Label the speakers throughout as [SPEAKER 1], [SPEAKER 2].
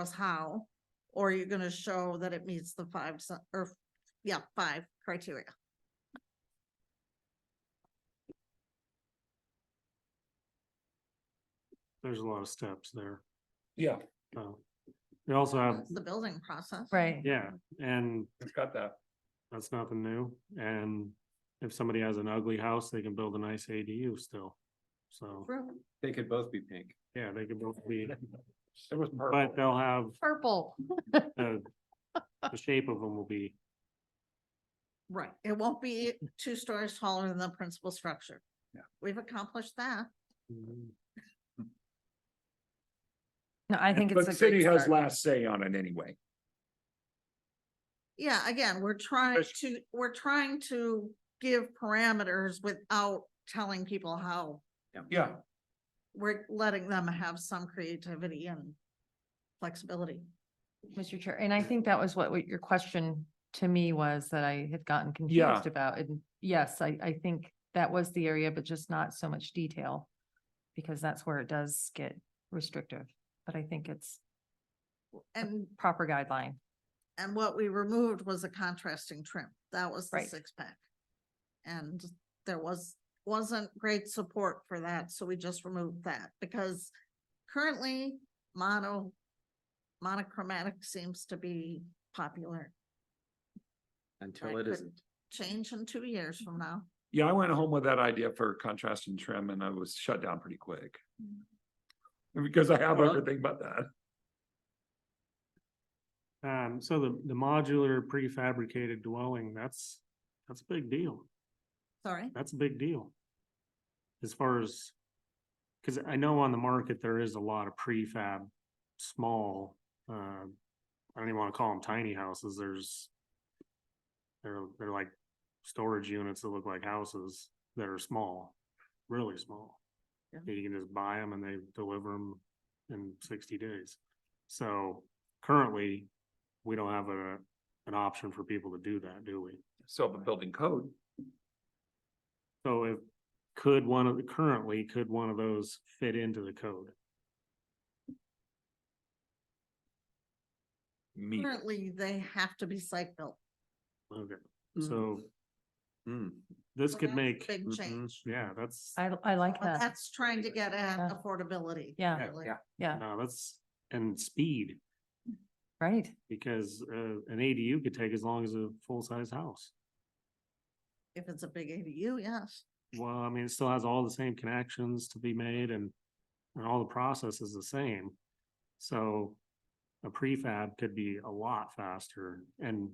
[SPEAKER 1] us how, or you're gonna show that it meets the five, s- or, yeah, five criteria.
[SPEAKER 2] There's a lot of steps there.
[SPEAKER 3] Yeah,
[SPEAKER 2] So we also have,
[SPEAKER 1] That's The building process.
[SPEAKER 4] Right.
[SPEAKER 2] yeah, and
[SPEAKER 3] it's got that.
[SPEAKER 2] that's nothing new. And if somebody has an ugly house, they can build a nice ADU still. So,
[SPEAKER 1] True.
[SPEAKER 5] They could both be pink.
[SPEAKER 2] yeah, they could both be,
[SPEAKER 3] It was
[SPEAKER 2] but
[SPEAKER 3] purple.
[SPEAKER 2] they'll have
[SPEAKER 4] Purple.
[SPEAKER 2] the, the shape of them will be,
[SPEAKER 1] Right, it won't be two stories taller than the principal structure.
[SPEAKER 5] Yeah.
[SPEAKER 1] We've accomplished that.
[SPEAKER 4] No, I think
[SPEAKER 3] But
[SPEAKER 4] it's a great
[SPEAKER 3] city has
[SPEAKER 4] start.
[SPEAKER 3] last say on it anyway.
[SPEAKER 1] Yeah, again, we're trying
[SPEAKER 3] Yes.
[SPEAKER 1] to, we're trying to give parameters without telling people how.
[SPEAKER 3] Yeah,
[SPEAKER 1] We're letting them have some creativity and flexibility.
[SPEAKER 4] Mr. Chair, and I think that was what what your question to me was that I had gotten
[SPEAKER 3] Yeah.
[SPEAKER 4] confused about. And yes, I, I think that was the area, but just not so much detail. Because that's where it does get restrictive, but I think it's
[SPEAKER 1] And,
[SPEAKER 4] proper guideline.
[SPEAKER 1] and what we removed was a contrasting trim. That was the
[SPEAKER 4] Right.
[SPEAKER 1] six pack. And there was, wasn't great support for that, so we just removed that because currently mono, monochromatic seems to be popular.
[SPEAKER 5] Until
[SPEAKER 1] Right,
[SPEAKER 5] it
[SPEAKER 1] but-
[SPEAKER 5] isn't.
[SPEAKER 1] Change in two years from now.
[SPEAKER 3] yeah, I went home with that idea for contrast and trim and I was shut down pretty quick.
[SPEAKER 4] Mm.
[SPEAKER 3] Because I have
[SPEAKER 5] Well-
[SPEAKER 3] everything but that.
[SPEAKER 2] um, so the, the modular prefabricated dwelling, that's, that's a big deal.
[SPEAKER 1] Sorry.
[SPEAKER 2] That's a big deal. As far as, cause I know on the market, there is a lot of prefab, small, uh, I don't even wanna call them tiny houses, there's. They're, they're like storage units that look like houses that are small, really small.
[SPEAKER 1] Yeah.
[SPEAKER 2] And You can just buy them and they deliver them in sixty days. So currently, we don't have a, an option for people to do that, do we?
[SPEAKER 3] So the building code,
[SPEAKER 2] So if, could one of, the currently, could one of those fit into the code?
[SPEAKER 3] meet.
[SPEAKER 1] Currently, they have to be site built.
[SPEAKER 2] Okay, so
[SPEAKER 3] hmm,
[SPEAKER 5] Mm.
[SPEAKER 2] this
[SPEAKER 1] So
[SPEAKER 2] could
[SPEAKER 1] Mm-hmm. that's a
[SPEAKER 2] make, mm-hmm,
[SPEAKER 1] Big
[SPEAKER 5] mhm.
[SPEAKER 1] change.
[SPEAKER 2] yeah, that's,
[SPEAKER 4] I, I like
[SPEAKER 1] But
[SPEAKER 4] that.
[SPEAKER 1] That's trying to get at
[SPEAKER 4] Yeah.
[SPEAKER 1] affordability.
[SPEAKER 4] Yeah.
[SPEAKER 2] Yeah.
[SPEAKER 1] really.
[SPEAKER 5] Yeah.
[SPEAKER 4] Yeah,
[SPEAKER 2] no, that's, and speed,
[SPEAKER 4] right.
[SPEAKER 2] because uh, an ADU could take as long as a full-size house.
[SPEAKER 1] If it's a big ADU, yes.
[SPEAKER 2] Well, I mean, it still has all the same connections to be made and, and all the process is the same. So a prefab could be a lot faster and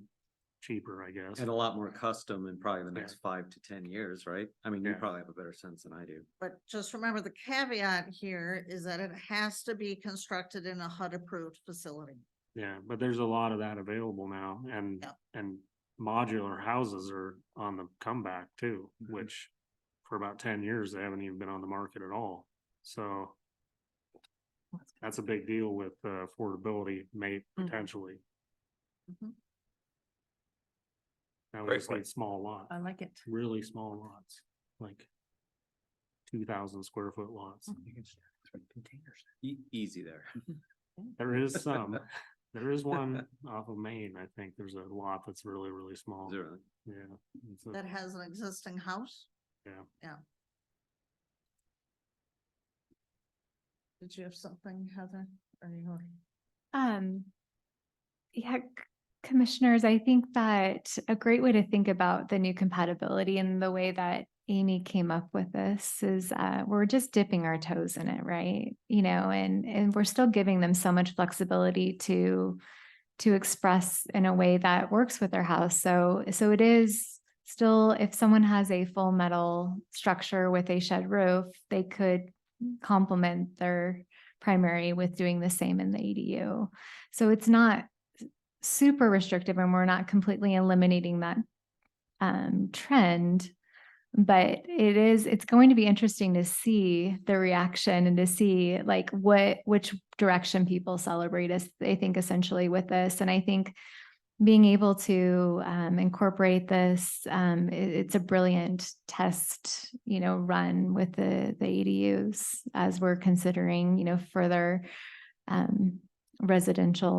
[SPEAKER 2] cheaper, I guess.
[SPEAKER 5] And a lot more custom in probably the next
[SPEAKER 2] Yeah.
[SPEAKER 5] five to ten years, right? I mean, you
[SPEAKER 2] Yeah.
[SPEAKER 5] probably have a better sense than I do.
[SPEAKER 1] But just remember the caveat here is that it has to be constructed in a HUD approved facility.
[SPEAKER 2] Yeah, but there's a lot of that available now and,
[SPEAKER 1] Yep.
[SPEAKER 2] and modular houses are on the comeback too,
[SPEAKER 5] Mhm.
[SPEAKER 2] which for about ten years, they haven't even been on the market at all. So that's a big deal with uh, affordability may potentially.
[SPEAKER 1] Mhm.
[SPEAKER 2] Now we
[SPEAKER 3] Great
[SPEAKER 2] just
[SPEAKER 3] point.
[SPEAKER 2] need small lots,
[SPEAKER 4] I like it.
[SPEAKER 2] really small lots, like two thousand square foot lots.
[SPEAKER 5] E- easy there.
[SPEAKER 2] There is some, there is one off of Maine, I think. There's a lot that's really, really small.
[SPEAKER 5] Zero.
[SPEAKER 2] Yeah. it's a-
[SPEAKER 1] That has an existing house.
[SPEAKER 2] Yeah.
[SPEAKER 1] Yeah. Did you have something, Heather? Or you were-
[SPEAKER 6] Um, yeah, c- commissioners, I think that a great way to think about the new compatibility and the way that Amy came up with this is uh, we're just dipping our toes in it, right? You know, and and we're still giving them so much flexibility to to express in a way that works with their house. So so it is still if someone has a full metal structure with a shed roof, they could complement their primary with doing the same in the ADU. So it's not s- super restrictive and we're not completely eliminating that um, trend. But it is, it's going to be interesting to see the reaction and to see like what, which direction people celebrate us, they think essentially with this. And I think being able to um, incorporate this, um, i- it's a brilliant test, you know, run with the, the ADUs as we're considering, you know, further um, residential